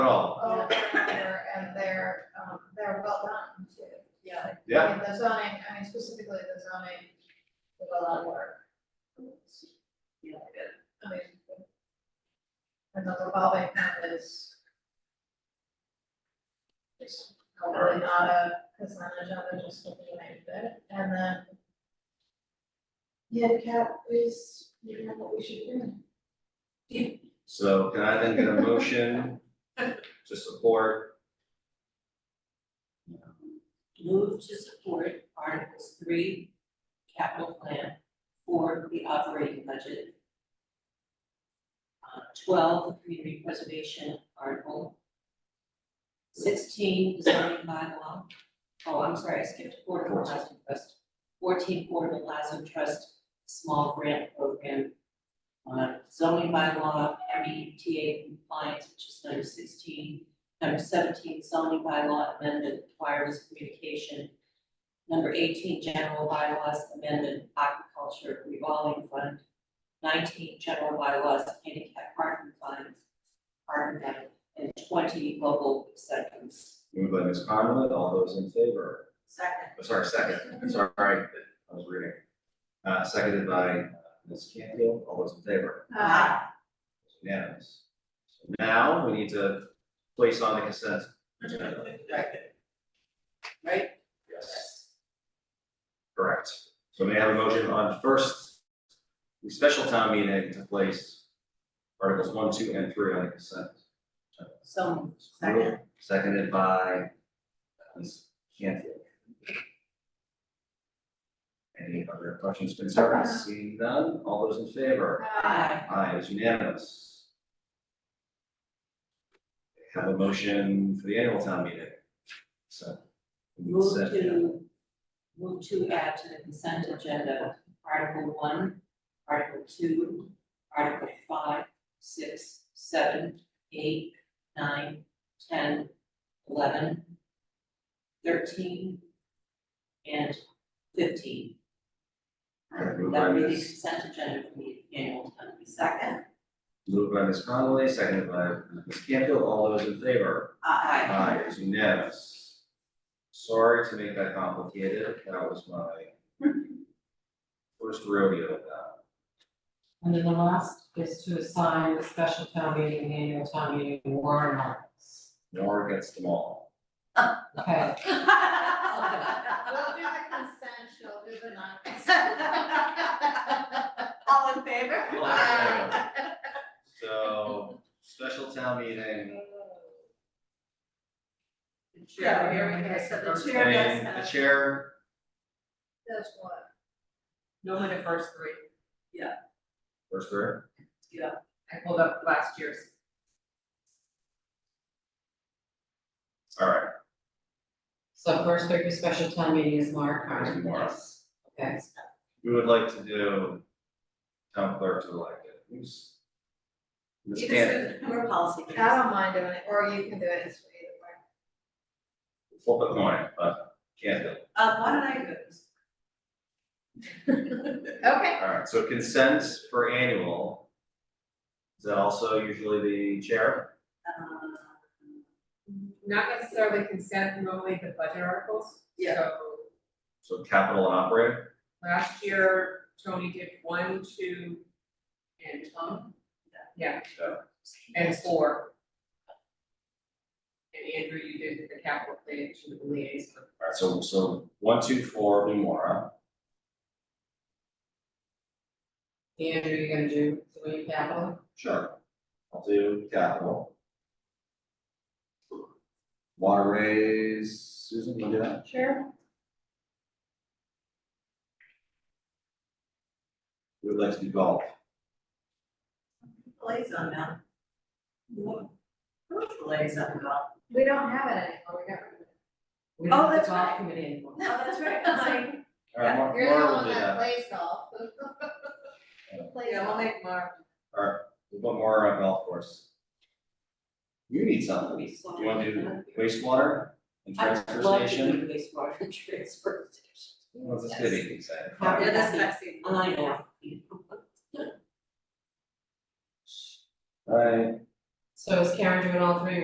Oh, here Oh, and they're, um, they're well done too. Yeah. Yeah. I mean, the zoning, I mean specifically the zoning, the well done work, Yeah, good. I mean. And the revolving fund is. It's probably not a consent agenda, just looking at it, and then. Handicap is, you know, what we should do. So can I then get a motion to support? Move to support Articles three, capital plan for the operating budget. Uh, twelve, the community preservation article. Sixteen, the zoning bylaw. Oh, I'm sorry, I skipped affordable housing trust. Fourteen, affordable housing trust, small grant program. Uh, zoning bylaw, MBTA compliance, which is number sixteen. Number seventeen, zoning bylaw amendment, wireless communication. Number eighteen, general bylaws amendment, aquaculture revolving fund. Nineteen, general bylaws, handicap parking fund, parking fund, and twenty, local acceptance. Moved by Ms. Conlon, all those in favor? Second. Oh, Sorry, second, sorry, I was reading. Uh, seconded by uh, Ms. Canfield, all those in favor? Uh, Unanimous. So Now, we need to place on the consent agenda. Right. Right? Yes, correct. So may I have a motion on first, the special town meeting to place articles one, two, and three on the consent So, second, Seconded by uh, Ms. Canfield. Any other questions, concerns? Seeing none, all those in favor? uh, aye, Aye, it's unanimous. Have a motion for the annual town meeting. So. we can move set- to, move to add to the consent agenda, Article one, Article two, Article five, six, seven, eight, nine, ten, eleven, thirteen, and fifteen. Okay, move That on, would be the Ms. consent agenda for the annual town meeting. Second. Moved by Ms. Conley, seconded by Ms. Canfield, all those in favor? Aye. Aye, it's unanimous. Sorry to make that complicated, that was my first rodeo with that. And then the last is to assign the special town meeting, and annual town meeting warrant articles. Nor gets them all. Okay, We'll do the consent, she'll do the non-consent. All in favor? So, special town meeting, Yeah, here we go, so the chair and the does that. chair, That's what. normally the first three, first third, I pulled up last year's. alright, So first three for special town meeting is Mark there's Carmen. more. Okay, We would like to do town clerk to elect it, who's? Ms. You Canfield, can say, we're policy. I don't mind doing it, or you can do it, it's either flip a coin, but Canfield, Uh, why don't I go? way. Okay. alright, so consent for annual. Is that also usually the chair? Um, Not necessarily consent, normally the budget articles. Yeah. So So capital and operating, last year, Tony did one, two, and um, yeah, and four. And Andrew, you did the capital plan to the liaison. alright, so, so one, two, four, Laura. Andrew, you're gonna do three capital, Sure. I'll do capital. Water raise, Susan, you wanna do that? Sure. We would like to do golf. Liaison now. Who's the liaison now? We don't have it anymore, we got rid of it. we Oh, don't have that's the right. golf committee anymore. No, that's right, I'm like, All right, Mar- You're the Laura will one do that that. plays golf. Plays Yeah, golf. we'll make Mark. We'll put Mara on golf course. You need something. we saw. You wanna do wastewater and transfer I'd love to station? do wastewater and transfer station. What's the city excited? Happy Yeah, that's to- sexy. I know. All right, So is Karen doing all three